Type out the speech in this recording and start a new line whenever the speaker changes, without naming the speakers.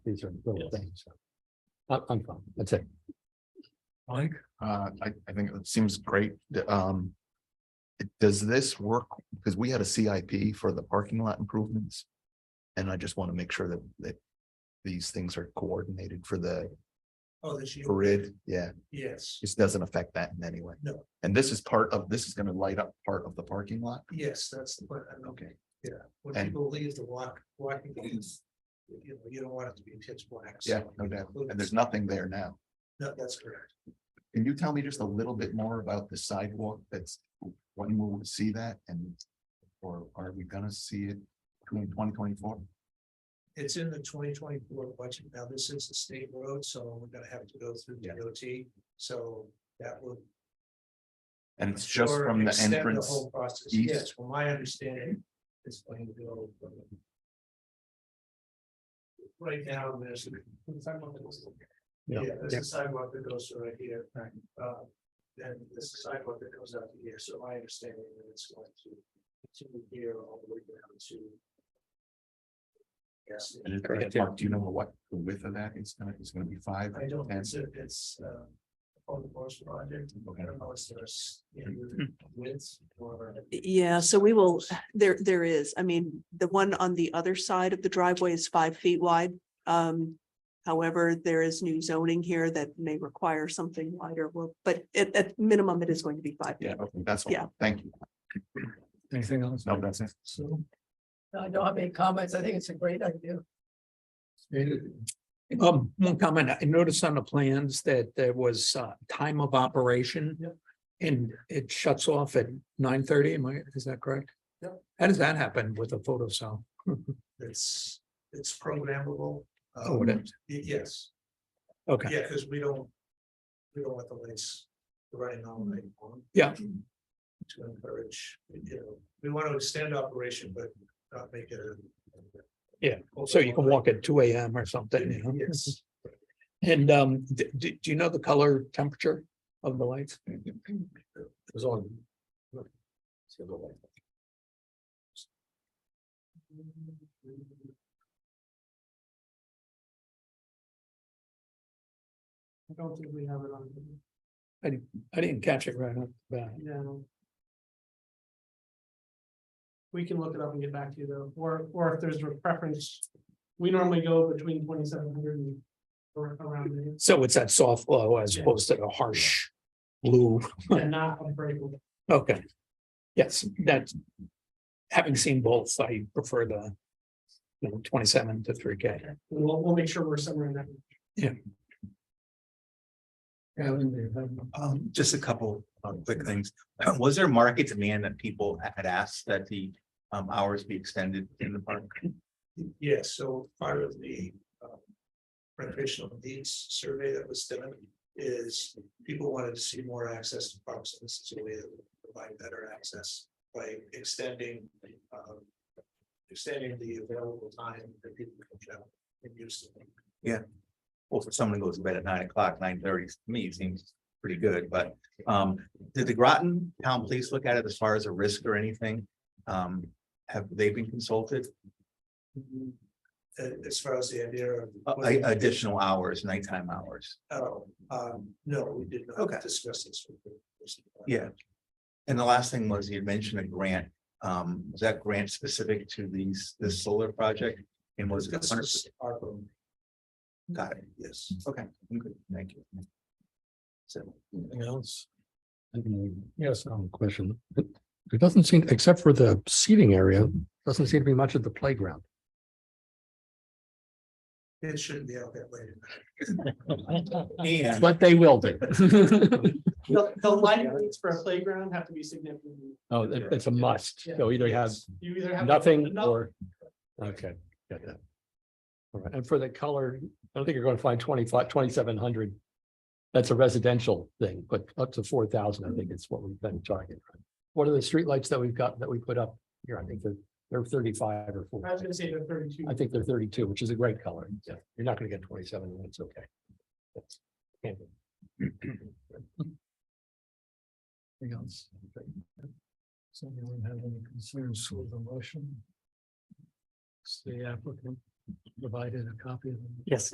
These are little
Yes.
things. I'm, I'm fine, that's it.
Mike? Uh, I, I think it seems great, The, um. it- Does this work? Because we had a CIP for the parking lot improvements. And I just want to make sure that, that these things are coordinated for the
Oh, this year,
grid, yeah,
yes,
this doesn't affect that in any way.
No.
And this is part of, this is gonna light up part of the parking lot,
yes, that's the plan, okay, yeah, when
And-
people leave the walk, walking. is, You know, you don't want it to be pitch black. so
yeah, no
you
doubt,
include-
and there's nothing there now.
No, that's correct,
Can you tell me just a little bit more about the sidewalk that's, when will we see that and? Or are we gonna see it in twenty twenty-four?
it's in the twenty twenty-four budget, now this is the state road, so we're gonna have to go through
Yeah.
DOT, so that would.
And it's just
or
from the
extend
entrance,
Whole process,
east?
yes, from my understanding, it's going to go. from- Right now, there's.
Yeah.
Yeah, there's a sidewalk that goes right here, uh, and there's a sidewalk that goes out to here, so my understanding that it's going to continue here all the way down to. Yes,
and it-
Correct, yeah.
Mark, do you know what the width of that is gonna, is gonna be five?
I don't,
Ten?
it's, it's, uh, on the course project, I
Okay.
don't know if there's, you know, widths or.
Yeah, so we will, there, there is, I mean, the one on the other side of the driveway is five feet wide. Um, however, there is new zoning here that may require something wider, Well, but at, at minimum, it is going to be five. feet.
Yeah, okay, that's
Yeah.
all, thank you.
Anything else?
No, that's it.
So. I don't have any comments. I think it's a great idea.
Um, one comment, I noticed on the plans that there was uh time of operation. And it shuts off at nine thirty, am I, is that correct?
Yeah.
How does that happen with a photo cell?
It's, it's programmable.
Oh,
um,
it is,
y- Yes,
okay,
yeah, because we don't, we don't want the lights running all night long.
Yeah.
To encourage, you know, we want to extend operation, but not make it. a-
Yeah, so you can walk at two AM or something, you know?
Yes,
And um, do do you know the color temperature of the lights?
It was on.
I don't think we have it on,
I didn't catch it right off the bat.
no. We can look it up and get back to you though, or, or if there's a preference, we normally go between twenty-seven hundred and around there.
So it's that soft glow as opposed to the harsh blue.
And not unbreakable.
Okay. Yes, that's. Having seen both, I prefer the. You know, twenty-seven to three K.
We'll, we'll make sure we're somewhere in that.
Um, just a couple of quick things. Was there market demand that people had asked that the um hours be extended in the park?
Yes, so part of the um, recreational needs survey that was done is people wanted to see more access to parks. and This is a way to provide better access by extending um, extending the available time that people can travel and use them.
Well, for someone who goes to bed at nine o'clock, nine thirty, to me, it seems pretty good, but um, did the Groton Town Police look at it as far as a risk or anything? Um, have they been consulted,
And As far as the idea of.
Uh, a- additional hours, nighttime hours?
Oh, um, no, we did
Okay.
not discuss this. with the person.
Yeah. And the last thing was you had mentioned a grant. Um, was that grant specific to these, this solar project? And was it?
This
100%?
is our own,
Got it.
yes.
Okay, I'm good. Thank you. So.
Anything else? Yes, um, question. There doesn't seem, except for the seating area, doesn't seem to be much of the playground.
It shouldn't be out that late.
And
But they will be.
The, the light needs for a playground have to be significant.
Oh, it- it's a must. So either have
You either have.
nothing or, okay, got that. All right, and for the color, I don't think you're going to find 25, 2700. That's a residential thing, but up to four thousand, I think it's what we've been targeting. What are the streetlights that we've got that we put up here? I think they're, they're thirty-five or
I was
forty.
gonna say the thirty-two.
I think they're thirty-two, which is a great color. Yeah, You're not gonna get twenty-seven, and it's okay. That's- can't be.
Anything else? Does anyone have any concerns with the motion? It's the applicant.
provided a copy of them?
Yes,